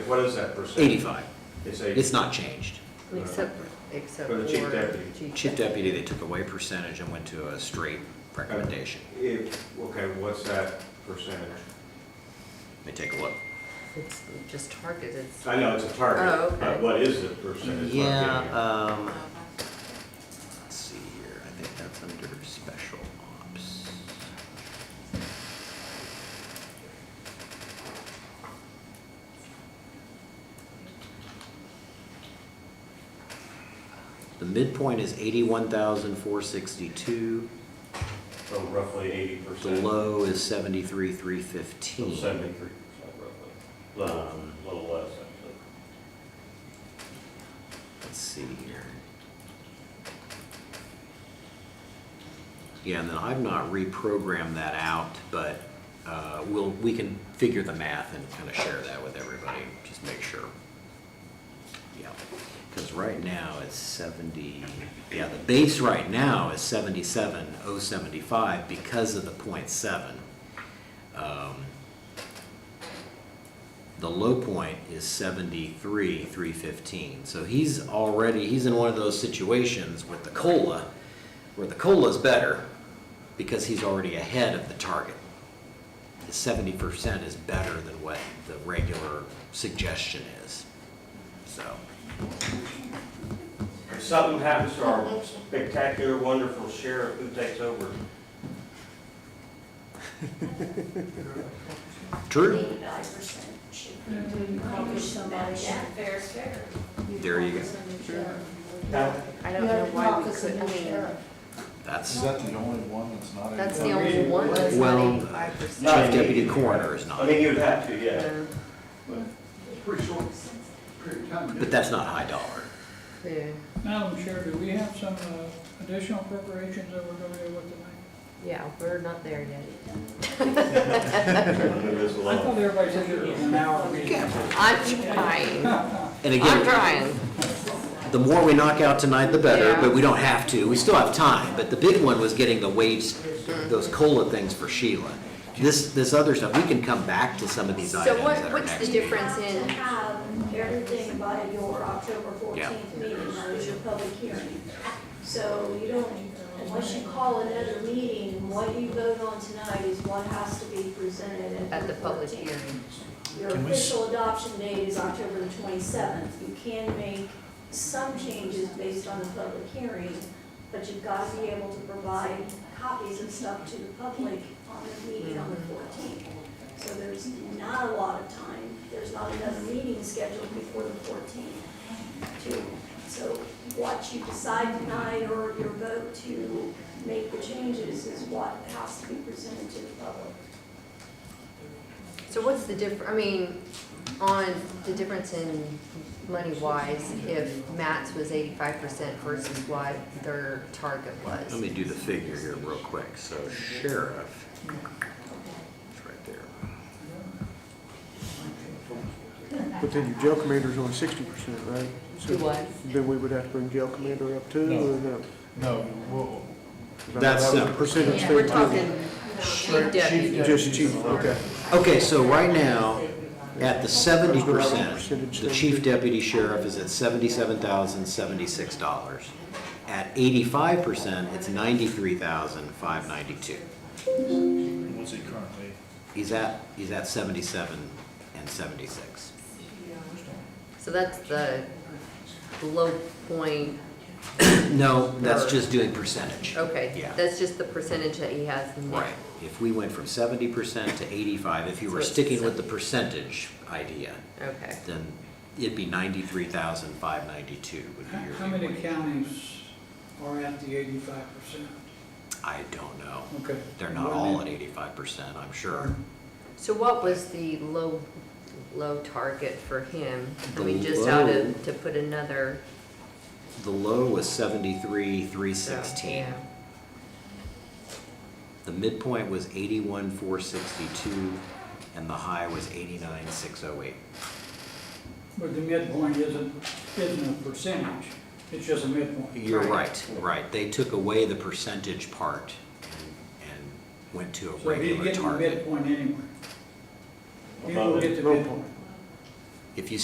what is that percent? 85. It's It's eighty. not changed. Except, except for. Uh, For the chief deputy. Chief deputy, they took away percentage and went to a straight recommendation. If, okay, what's that percentage? Let me take a look. It's just targeted. I know it's a Oh, target, okay. but what is the percentage? Yeah, um, let's see here, I think that's under special ops. The midpoint is eighty-one thousand four sixty-two, So roughly eighty the percent. low is seventy-three three fifteen. Seventy-three percent roughly, little, Um, little less actually. Let's see here. Yeah, and then I've not reprogrammed that out, but uh, we'll, we can figure the math and kind of share that with everybody, just make sure. Yeah, because right now it's 70, yeah, the base right now is 77,075 because of the .7. Um, the low point is seventy-three, three fifteen. So he's already, he's in one of those situations with the COLA, where the COLA is better because he's already ahead of the target. The seventy percent is better than what the regular suggestion is, so. If something happens to our spectacular, wonderful sheriff, who takes over? True. Eighty-nine percent should be. Probably somebody should. Fair is fair. There you go. Now, I don't know why we couldn't, I mean, That's Is that the only one that's not? in that's the there? only one that's not Well, eighty-five chief No, I percent. mean- deputy coroner is I not, mean, you'd have to, yeah. pretty short period of time. but that's not high dollar. Yeah, Madam Chair, do we have some uh, additional appropriations that we're going to do with tonight? yeah, we're not there yet. Move this I thought along. everybody said it was an hour meeting. I'm trying, And I'm again, trying. the more we knock out tonight, the better, Yeah. but we don't have to. We still have time, but the big one was getting the wage, those COLA things for Sheila. This, this other stuff, we can come back to some of these items So what, at our what's the next meeting. difference You in, have to have everything by your October Yeah. fourteenth meeting, that is your public hearing. So you don't, unless you call another meeting, what you vote on tonight is what has to be presented at the public 14th. hearing? Your official adoption date is October the twenty-seventh. You can make some changes based on the public hearing, but you've got to be able to provide copies of stuff to the public on the meeting on the fourteenth. So there's not a lot of time, there's not another meeting scheduled before the fourteenth to, so what you decide tonight or your vote to make the changes is what has to be presented to the public. So what's the diff, I mean, on the difference in money wise, if Matt's was eighty-five percent versus what their target was? Let me do the figure here real quick. So sheriff, it's right there. But then your jail commander's only sixty percent, right? So Do what? Then we would have to bring jail commander up too, No. or no? No, well, That's That was separate. the percentage We're thing talking chief deputy. Just chief, okay. Okay, so right now, at the seventy percent, Percentage the thing. chief deputy sheriff is at seventy-seven thousand seventy-six dollars. At eighty-five percent, it's ninety-three thousand five ninety-two. what's it currently? He's at, he's at seventy-seven and seventy-six. So that's the low point, No, that's just doing percentage. Oh. okay, Yeah. that's just the percentage that he has now. Right. If we went from seventy percent to eighty-five, if you were So it's sticking with the percentage idea, Okay, then it'd be ninety-three thousand five ninety-two would be your. How many viewpoint. counties are at the eighty-five percent? I don't know. Okay. They're not all at eighty-five percent, I'm sure. so what was the low, low target for him? I The mean, just out low- of, to put another. Mm-hmm. The low was seventy-three, three so, sixteen. yeah. The midpoint was eighty-one, four sixty-two, and the high was eighty-nine, six oh eight. But the midpoint isn't, isn't a percentage, it's just a midpoint. You're Right. right, right. They took away the percentage part and- and went to a So he's regular getting the target. midpoint anyway. He will Above it. get the midpoint. If you